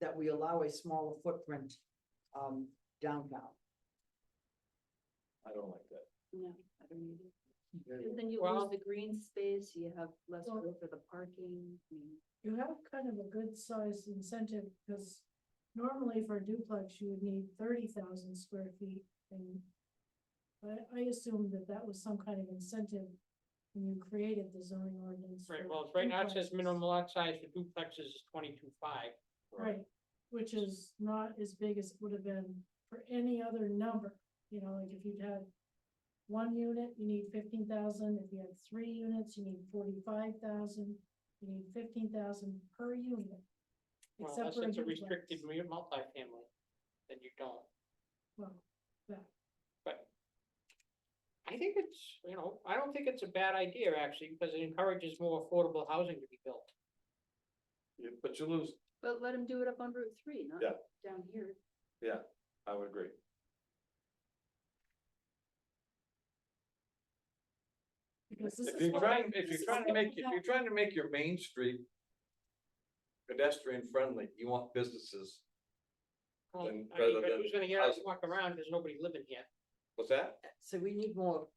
that we allow a smaller footprint um downtown. I don't like that. No, I don't either. Very Because then you Well- lose the green space, you have less Well- room for the parking. I mean, You have kind of a good sized incentive, because normally for a duplex, you would need thirty thousand square feet and. But I assume that that was some kind of incentive when you created the zoning ordinance. Right, for well, right now it says duplexes. minimum lot size for duplexes is twenty-two five. Right, which is not as big as it would have been for any other number, you know, like if you'd had. One unit, you need fifteen thousand, if you had three units, you need forty-five thousand, you need fifteen thousand per unit. Well, except unless for it's a duplex. restricted mu- multifamily, then you don't. Well, that- I think it's, you know, I don't think it's a bad idea actually, because it encourages more affordable housing to be built. You- But you lose, But let them do it up on Route three, not Yeah. down here. I would agree. because this If is you're what- trying, if this you're is trying to what make, we if you're have. trying to make your main street pedestrian friendly, you want businesses. Well, I Then mean, rather but than who's gonna get out and housing. walk around, there's nobody living here. What's that? So we need more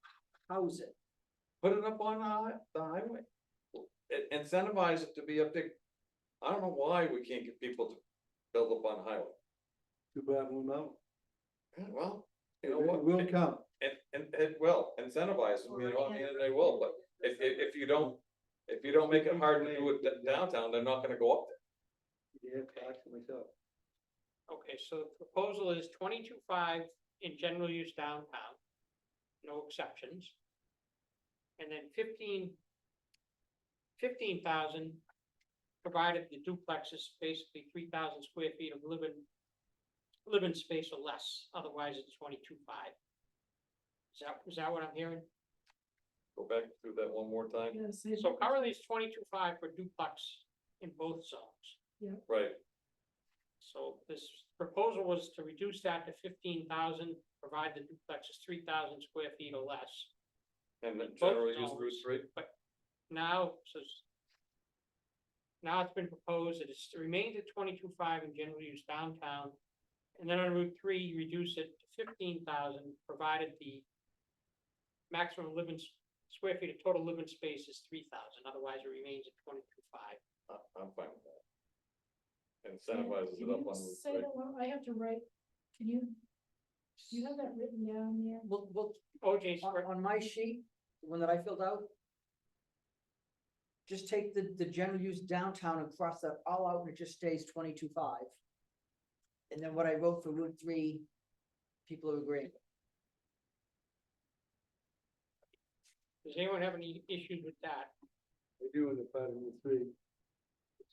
housing. Put it up on the hi- the highway. In- Incentivize it to be a big, I don't know why we can't get people to build up on the highway. Too bad we're not. Yeah, Well, you It know what? will come. And, and it will incentivize them, you know, I mean, and they will, but if, if, if you don't, if you don't make it hard to do it d- downtown, they're not gonna go up Yeah, actually, so. Okay, so the proposal is twenty-two five in general use downtown, no exceptions. And then fifteen, fifteen thousand, provided the duplex is basically three thousand square feet of living, living space or less, otherwise it's twenty-two five. Is that, is that what I'm hearing? there. Go back through that one more time, Yeah, say- So currently it's twenty-two five for duplex in both zones. right, So this proposal was to reduce that to fifteen thousand, provide the duplex is three thousand square feet or less. and then Both generally use zones. Route three, Now, so it's- now it's been proposed that it's remained at twenty-two five in general use downtown. And then on Route three, you reduce it to fifteen thousand, provided the maximum living s- square feet of total living space is three thousand, otherwise it remains at twenty-two five. I, I'm fine with that. Yeah, Incentivizes can it up you on Route Say three. that one, I have to write, can you, do you have that written down there? Well, well, OJ's, on, on my sheet, the one that I filled out. Just take the, the general use downtown and cross that all out and it just stays twenty-two five. And then what I wrote for Route three, people are agreeing. does anyone have any issues with that? We do in the part of the three.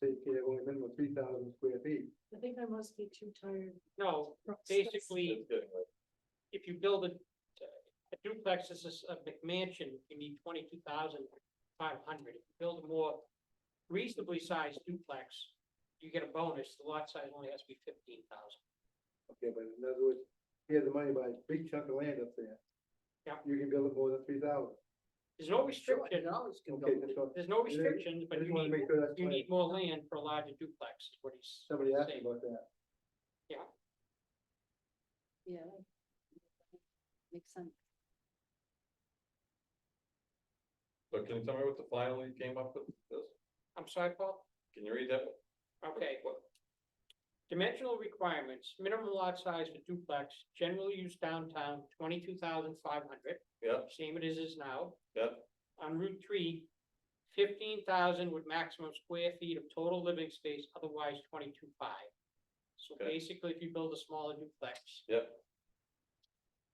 Take care of only minimum three thousand square feet. I think I must be too tired. No, from stress. basically. It's getting late. if you build a, a duplex, this is a McMansion, you need twenty-two thousand five hundred. If you Build a more reasonably sized duplex, you get a bonus, the lot size only has to be fifteen thousand. Okay, but in other words, here's the money by a big chunk of land up there. Yeah. You can build it more than three thousand. There's no Sure, restriction, and always can go. Okay, that's all. there's no Yeah, restrictions, I but just you wanna need, make sure that's you clear. need more land for a larger duplex, is what he's Somebody asked me saying. about that. Yeah. Makes sense. So can you tell me what the final you came up with, this, I'm sorry, Paul? can you read that? Okay, well. Dimensional requirements, minimum lot size for duplex, general use downtown, twenty-two thousand five hundred. Yep. Same it is is now. Yep. On Route three, fifteen thousand with maximum square feet of total living space, otherwise twenty-two five. So Okay. basically, if you build a smaller duplex, Yep,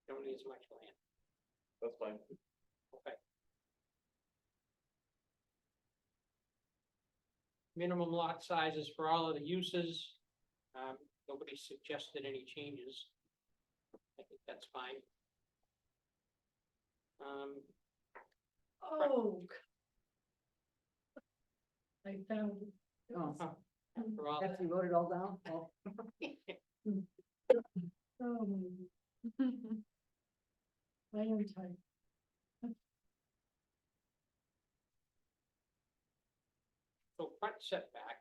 you don't need as much land. that's fine, Minimum lot sizes for all of the uses, um, nobody suggested any changes. I think that's fine. Um, Oh. c- I found it. It Oh. was- for all, After you wrote it all down, oh. Oh, my God. I am tired. so front setback.